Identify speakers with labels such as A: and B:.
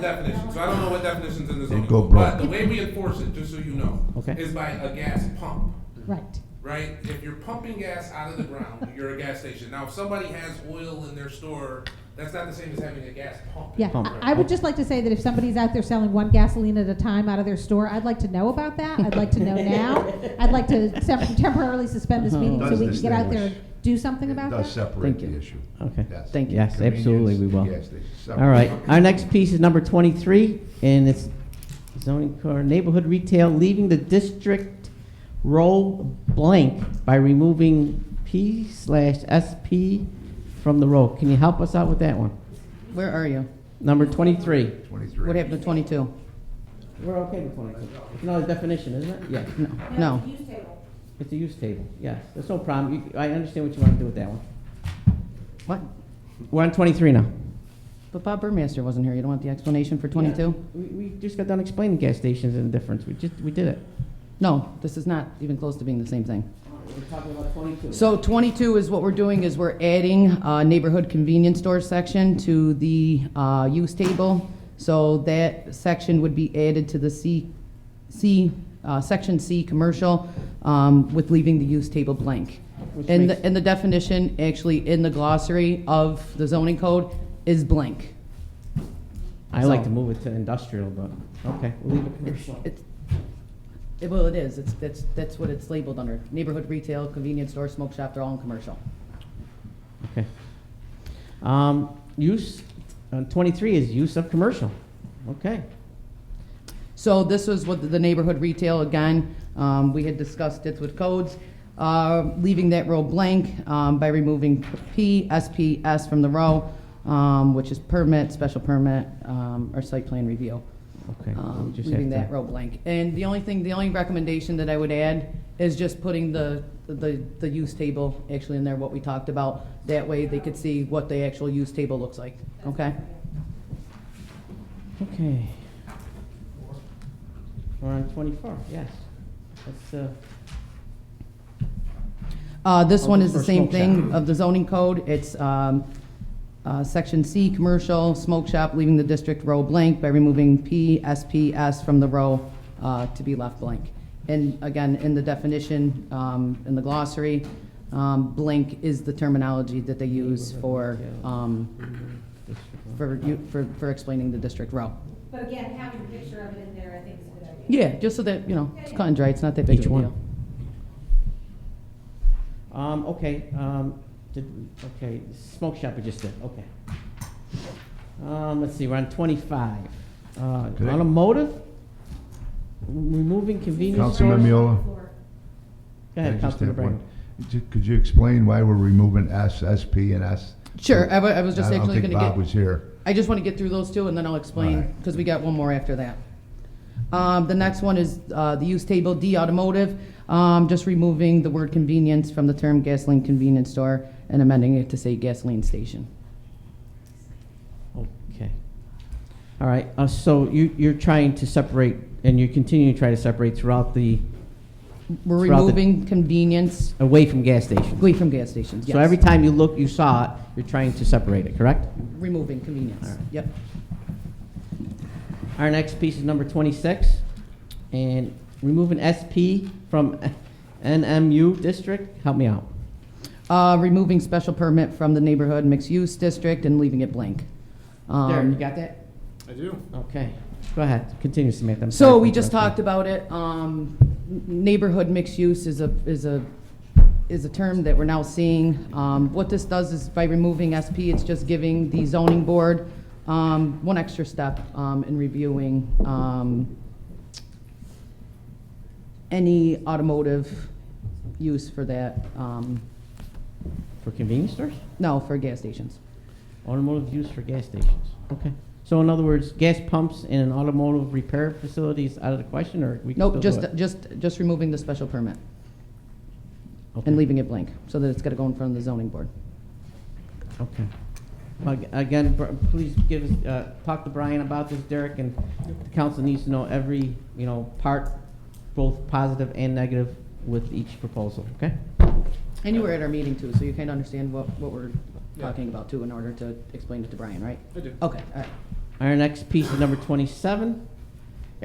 A: definition, so I don't know what definition's in the zoning
B: go
A: code, but
B: broke.
A: the way we enforce it, just so you know,
C: Okay.
A: is by a gas pump,
C: Right.
A: right? If you're pumping gas out of the ground, you're a gas station. Now, if somebody has oil in their store, that's not the same as having a gas pump. in
C: Yeah,
A: it,
C: I-
A: right?
C: I would just like to say that if somebody's out there selling one gasoline at a time out of their store, I'd like to know about that. I'd like to know now. I'd like to sem- temporarily suspend this meeting so
B: Uh-huh. Does
C: we can get out there and
B: distinguish.
C: do something
B: It
C: about
B: does
C: that.
B: separate
D: Thank
B: the
D: you.
B: issue.
D: Okay.
B: Yes.
D: Thank you. Yes,
B: Convenience
D: absolutely we
B: and
D: will.
B: gas stations, separate.
D: All right, our next piece is number 23, and it's zoning code, neighborhood retail, leaving the district role blank by removing P slash SP from the role. Can you help us out with that one?
E: Where are you?
D: Number 23.
B: Twenty-three.
E: What happened to twenty-two?
D: We're okay with 23. It's not a definition, isn't it? Yeah,
E: No.
D: it's a use table, yes. There's no problem. You- I understand what you want to do with that one.
E: What?
D: We're on 23 now.
E: But Bob Burmaster wasn't here. You don't want the explanation for twenty-two?
D: We, we just got done explaining gas stations and the difference. We just, we did it.
E: No, this is not even close to being the same thing.
D: We're talking about 22.
E: So 22 is what we're doing, is we're adding uh, neighborhood convenience store section to the uh, use table. So that section would be added to the C, C, uh, section C, commercial, um, with leaving the use table blank.
D: Which
E: And
D: makes-
E: the, and the definition, actually, in the glossary of the zoning code, is blank.
D: I like
E: So-
D: to move it to industrial, but, okay, we'll leave it commercial.
E: It's- it- Well, it is, it's, that's, that's what it's labeled under. Neighborhood retail, convenience store, smoke shop, they're all in commercial.
D: Okay. Um, use, uh, twenty-three is use of commercial. Okay.
E: So this was what the neighborhood retail, again, um, we had discussed it with codes, uh, leaving that row blank, um, by removing P, SP, S from the row, um, which is permit, special permit, um, or site plan review.
D: Okay. so we
E: Um,
D: just have
E: leaving
D: to-
E: that row blank. And the only thing, the only recommendation that I would add is just putting the, the, the use table actually in there, what we talked about. That way they could see what the actual use table looks like, okay?
D: Okay. We're on twenty-four, yes. That's, uh,
E: Uh, this one is
D: Or
E: the same
D: smoke shop.
E: thing of the zoning code. It's, um, uh, section C, commercial, smoke shop, leaving the district row blank by removing P, S, P, S from the row, uh, to be left blank. And again, in the definition, um, in the glossary, um, blank is the terminology that they use for, um,
D: uh,
E: for, you- for, for explaining the district row.
F: But again, having a picture of it in there, I think is a good idea.
E: Yeah, just so that, you know, it's cut and dry, it's not that big of
D: Each
E: a
D: one.
E: deal.
D: um, okay, um, did, okay, smoke shop we just did, okay. Um, let's see, we're on twenty-five. Uh,
B: Okay.
D: automotive? Removing convenience stores?
B: Councilman Miola.
D: Go ahead,
B: I just
D: Councilman
B: have
D: Brandon.
B: one. Ju- Could you explain why we're removing S, SP, and S?
E: Sure, I wa- I was just
B: I don't
E: actually
B: think
E: gonna
B: Bob
E: get-
B: was here.
E: I just want to get through those two, and then I'll
B: All
E: explain,
B: right.
E: because we got one more after that. Um, The next one is uh, the use table D automotive, um, just removing the word convenience from the term gasoline convenience store and amending it to say gasoline station.
D: Okay. All right, uh, so you, you're trying to separate, and you continue to try to separate throughout the,
E: We're
D: Throughout the-
E: removing convenience
D: away from gas stations.
E: away from gas stations, yes.
D: So every time you look, you saw it, you're trying to separate it, correct?
E: Removing
D: All
E: convenience,
D: right.
E: yep.
D: Our next piece is number twenty-six, and removing SP from NMU district, help me out.
E: Uh, Removing special permit from the neighborhood mixed-use district and leaving it blank.
D: There, you
E: Um,
D: got that?
A: I do.
D: Okay, go ahead, continue, Samantha. I'm sorry
E: So
D: for
E: we just
D: interrupting.
E: talked about it, um, n- neighborhood mixed use is a, is a, is a term that we're now seeing. Um, what this does is by removing SP, it's just giving the zoning board, um, one extra step, um, in reviewing, um, any automotive use for that, um,
D: For convenience stores?
E: no, for gas stations.
D: Automotive use for gas stations. Okay. So in other words, gas pumps in an automotive repair facility is out of the question, or we can
E: Nope,
D: still do
E: just,
D: it?
E: just, just removing the special permit
D: Okay.
E: and leaving it blank, so that it's gotta go in front of the zoning board.
D: Okay. Well, ag- Again, Br- please give us, uh, talk to Brian about this, Derek, and the council needs to know every, you know, part, both positive and negative with each proposal, okay?
E: And you were at our meeting too, so you kind of understand what, what we're
A: Yeah.
E: talking about too in order to explain it to Brian, right?
A: I do.
E: Okay, all right.
D: Our next piece is number twenty-seven.